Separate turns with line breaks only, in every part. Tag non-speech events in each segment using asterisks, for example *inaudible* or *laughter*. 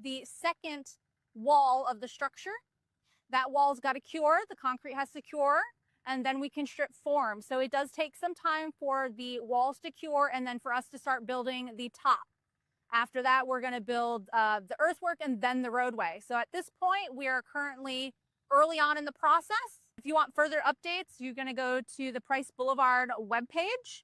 the second wall of the structure. That wall's got to cure, the concrete has to cure, and then we can strip form. So it does take some time for the walls to cure and then for us to start building the top. After that, we're going to build uh, the earthwork and then the roadway. So at this point, we are currently early on in the process. If you want further updates, you're going to go to the Price Boulevard webpage.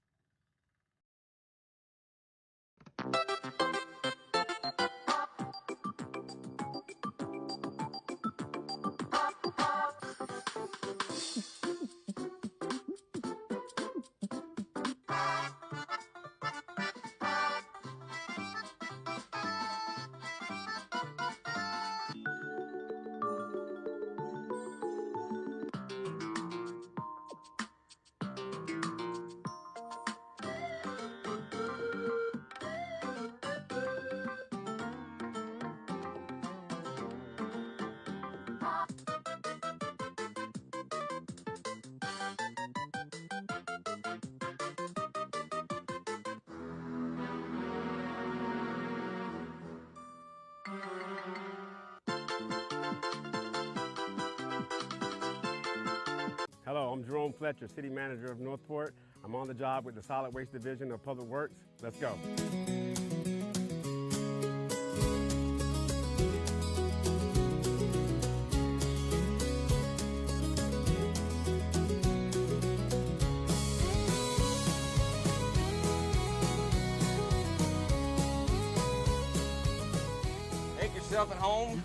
Hello, I'm Jerome Fletcher, City Manager of Northport. I'm on the job with the Solid Waste Division of Public Works. Let's go.
Make yourself at home.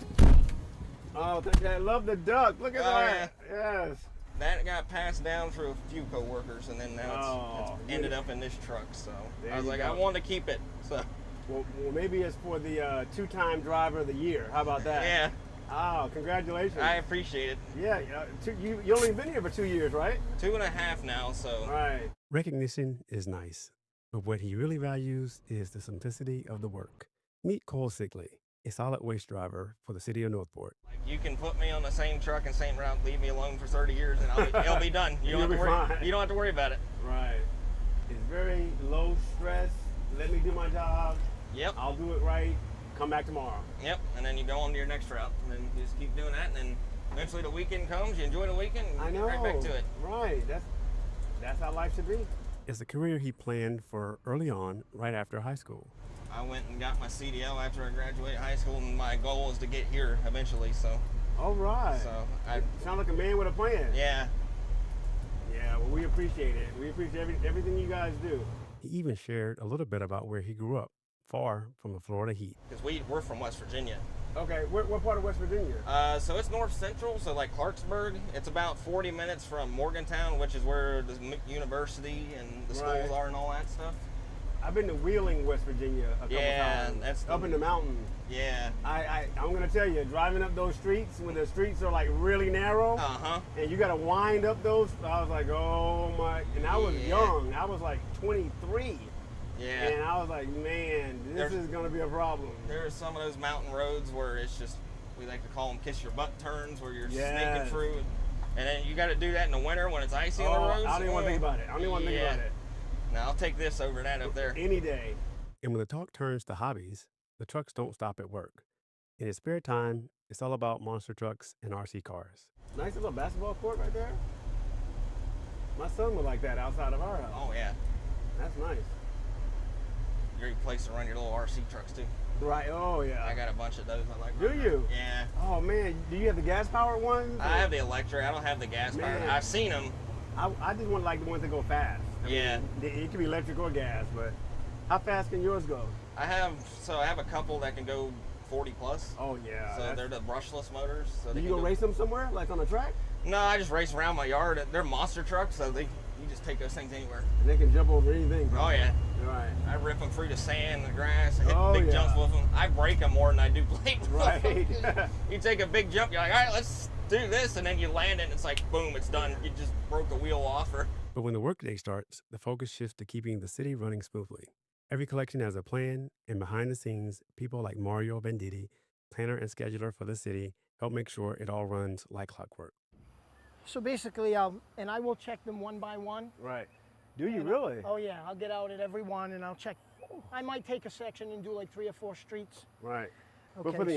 Oh, thank you. I love the duck. Look at
Oh,
that. Yes.
That got passed down through a few coworkers, and then now it's,
Oh,
it's ended up in this truck. So
There
I was
you
like,
go.
I want to keep it.
*laughs*
So
Well, well, maybe it's for the uh, two-time driver of the year. How about that?
yeah,
Oh, congratulations.
I appreciate it.
yeah, uh, two, you, you only been here for two years, right?
Two and a half now. So
Right. Recognition is nice, but what he really values is the simplicity of the work. Meet Cole Sigley, a solid waste driver for the city of Northport.
you can put me on the same truck and same route, leave me alone for 30 years, and I'll be, it'll
*laughs*
be done. You
You'll
don't have
be
to worry.
fine.
You don't have to worry about it.
Right. It's very low stress. Let me do my job.
Yep.
I'll do it right. Come back tomorrow.
Yep. And then you go on to your next route, and then you just keep doing that, and then eventually the weekend comes. You enjoy the weekend. And
I
get
know.
Right back to it.
Right. That's that's how life should be. It's a career he planned for early on, right after high school.
I went and got my CDL after I graduated high school, and my goal is to get here eventually. So,
All right.
so I,
Sound like a man with a plan.
yeah,
Yeah, well, we appreciate it. We appreciate every, everything you guys do. He even shared a little bit about where he grew up, far from the Florida heat.
because we we're from West Virginia,
Okay, what, what part of West Virginia?
uh, so it's north central, so like Clarksburg. It's about 40 minutes from Morgantown, which is where the m- university and the
Right.
schools are and all that stuff.
I've been to Wheeling, West Virginia a couple
Yeah,
times.
that's
up
the-
in the mountain.
Yeah.
I, I I'm gonna tell you, driving up those streets when the streets are like really narrow
Uh huh.
and you gotta wind up those, I was like, oh my! And I was
Yeah.
young. I was like 23,
Yeah.
and I was like, man, this
There's-
is gonna be a problem.
There are some of those mountain roads where it's just we like to call them kiss your butt turns, where you're
Yes.
sneaking through, and then you got to do that in the winter when it's icy on
Oh,
the roads.
I don't even want to think
Oh.
about it. I don't even want to think about
Yeah.
it.
Now I'll take this over that up there.
Any day.
And when the talk turns to hobbies, the trucks don't stop at work. In his spare time, it's all about monster trucks and RC cars.
Nice little basketball court right there. My son would like that outside of our house.
Oh yeah,
That's nice.
great place to run your little RC trucks too.
Right. Oh yeah.
I got a bunch of those. I like.
Do
running.
you?
Yeah.
Oh man, do you have the gas powered ones?
I have the electric. I don't have the gas powered.
Man.
I've seen them.
I, I just want like the ones that go fast.
Yeah.
It, it can be electric or gas, but how fast can yours go?
I have so I have a couple that can go 40 plus.
Oh yeah.
so
that's-
they're the brushless motors. So
do
they
you
can
go race them somewhere, like on a track?
No, I just race around my yard. They're monster trucks, so they you just take those things anywhere.
And they can jump over anything.
Oh yeah.
Right.
I rip them through the sand, the grass, I hit
Oh,
big
yeah.
jumps with them. I break them more than I do plate. with 'em.
Right.
*laughs* you take a big jump, you're like, all right, let's do this, and then you land it, and it's like, boom, it's done. You just broke the wheel off, or
*laughs* But when the workday starts, the focus shifts to keeping the city running smoothly. Every collection has a plan, and behind the scenes, people like Mario Venditti, planner and scheduler for the city, help make sure it all runs like clockwork.
So basically, um, and I will check them one by one.
right. Do you really?
Oh yeah, I'll get out at every one and I'll check. I might take a section and do like three or four streets.
Right.
Okay.
But for the